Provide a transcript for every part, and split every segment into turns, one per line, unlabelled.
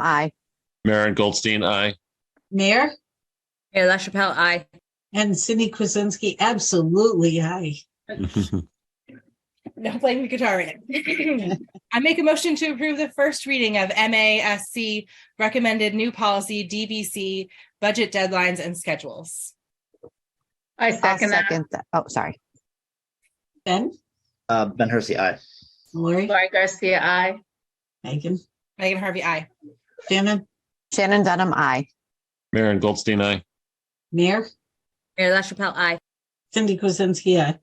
Aye.
Maren Goldstein, aye.
Mayor
Mayor LaChapelle, aye.
and Cindy Kuzensky, absolutely aye.
No playing the guitar in it. I make a motion to approve the first reading of MASC recommended new policy DBC budget deadlines and schedules.
I
I'll
second that.
second that. Oh, sorry.
Ben,
Uh, Ben Hersey, aye.
Lori,
Lori Garcia, I.
Megan,
Megan Harvey, I.
Shannon,
Shannon Dunham, aye.
Maren Goldstein, aye.
Mayor,
Mayor LaChapelle, aye.
Cindy Kuzensky, aye.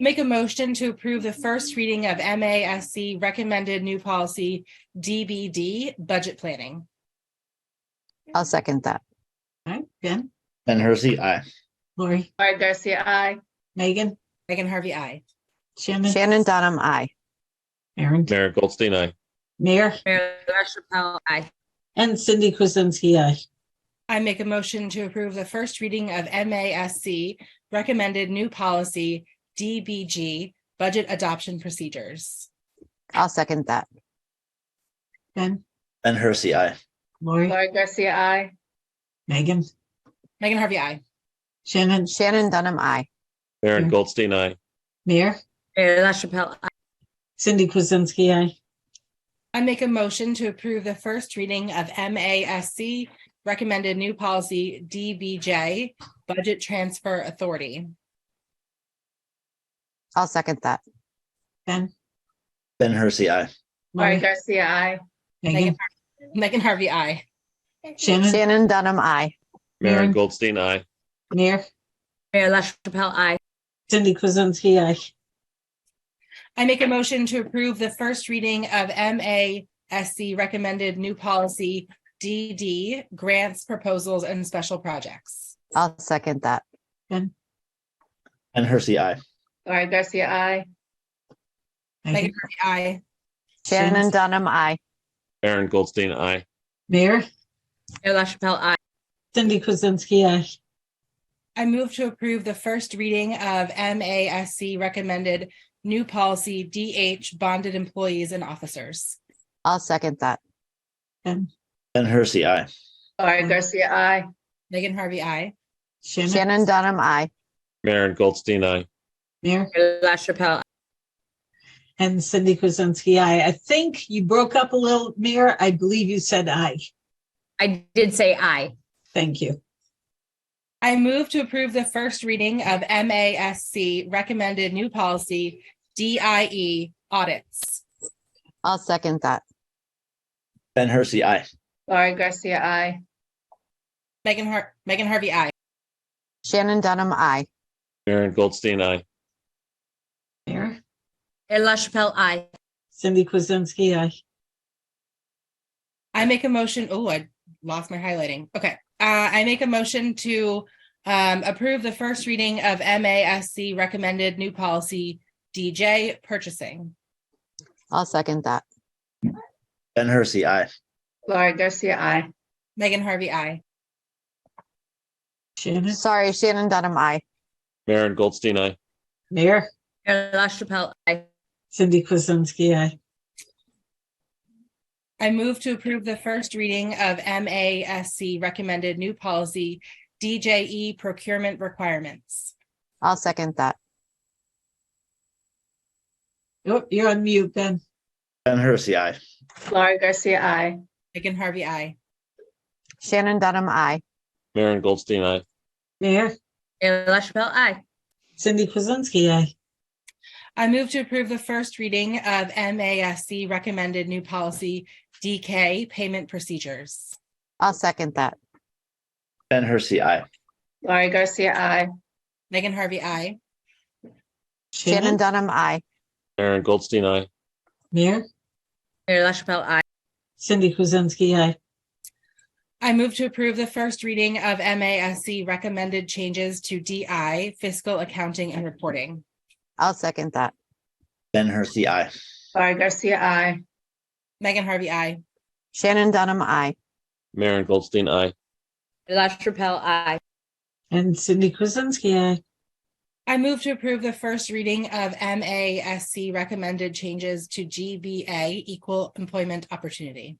Make a motion to approve the first reading of MASC recommended new policy DBD budget planning.
I'll second that.
All right, Ben,
Ben Hersey, aye.
Lori,
Lori Garcia, I.
Megan,
Megan Harvey, I.
Shannon,
Shannon Dunham, aye.
Aaron,
Maren Goldstein, aye.
Mayor,
Mayor LaChapelle, aye.
and Cindy Kuzensky, aye.
I make a motion to approve the first reading of MASC recommended new policy DBG budget adoption procedures.
I'll second that.
Ben,
Ben Hersey, aye.
Lori,
Lori Garcia, I.
Megan,
Megan Harvey, I.
Shannon,
Shannon Dunham, aye.
Maren
Maren.
Goldstein, aye.
Mayor,
Mayor LaChapelle, aye.
Cindy Kuzensky, aye.
I make a motion to approve the first reading of MASC recommended new policy DBJ budget transfer authority.
I'll second that.
Ben,
Ben Hersey, aye.
Lori
Lori,
Garcia, I.
Megan,
Megan Harvey, I.
Shannon,
Shannon Dunham, aye.
Maren
Maren.
Goldstein, aye.
Mayor,
Mayor LaChapelle, aye.
Cindy Kuzensky, aye.
I make a motion to approve the first reading of MASC recommended new policy DD grants, proposals, and special projects.
I'll second that.
Ben Hersey, aye.
Lori Garcia, I.
Megan,
Megan Harvey, I.
Shannon
Shannon-
Dunham, aye.
Maren Goldstein, aye.
Mayor,
Mayor LaChapelle, aye.
Cindy Kuzensky, aye.
I move to approve the first reading of MASC recommended new policy DH bonded employees and officers.
I'll second that.
Ben,
Ben Hersey, aye.
Lori Garcia, I.
Megan Harvey, I.
Shannon,
Shannon Dunham, aye.
Maren Goldstein, aye.
Mayor,
Mayor LaChapelle,
And Cindy Kuzensky, I, I think you broke up a little, Mayor. I believe you said aye.
I did say aye.
Thank you.
I move to approve the first reading of MASC recommended new policy DIE audits.
I'll second that.
Ben Hersey, aye.
Lori Garcia, I.
Megan Har- Megan Harvey, I.
Shannon Dunham, aye.
Maren Goldstein, aye.
Mayor,
Mayor LaChapelle, aye.
Cindy Kuzensky, I,
I make a motion. Oh, I lost my highlighting. Okay. Uh, I make a motion to um, approve the first reading of MASC recommended new policy DJ purchasing.
I'll second that.
Ben Hersey, aye.
Lori Garcia, I.
Megan Harvey, I.
Shannon,
Sorry, Shannon Dunham, aye.
Maren Goldstein, aye.
Mayor,
Mayor LaChapelle, aye.
Cindy Kuzensky, I,
I move to approve the first reading of MASC recommended new policy DJE procurement requirements.
I'll second that.
Oh, you're on mute, Ben.
Ben Hersey, aye.
Lori Garcia, I.
Megan Harvey, I.
Shannon Dunham, aye.
Maren Goldstein, aye.
Mayor,
Mayor LaChapelle, aye.
Cindy Kuzensky, I,
I move to approve the first reading of MASC recommended new policy DK payment procedures.
I'll second that.
Ben Hersey, aye.
Lori Garcia, I.
Megan Harvey, I.
Shannon
Shannon,
Dunham, aye.
Maren Goldstein, aye.
Mayor,
Mayor LaChapelle, aye.
Cindy Kuzensky, I,
I move to approve the first reading of MASC recommended changes to DI fiscal accounting and reporting.
I'll second that.
Ben Hersey, aye.
Lori Garcia, I.
Megan Harvey, I.
Shannon Dunham, aye.
Maren Goldstein, aye.
Mayor LaChapelle, aye.
and Cindy Kuzensky, I,
I move to approve the first reading of MASC recommended changes to GBA equal employment opportunity.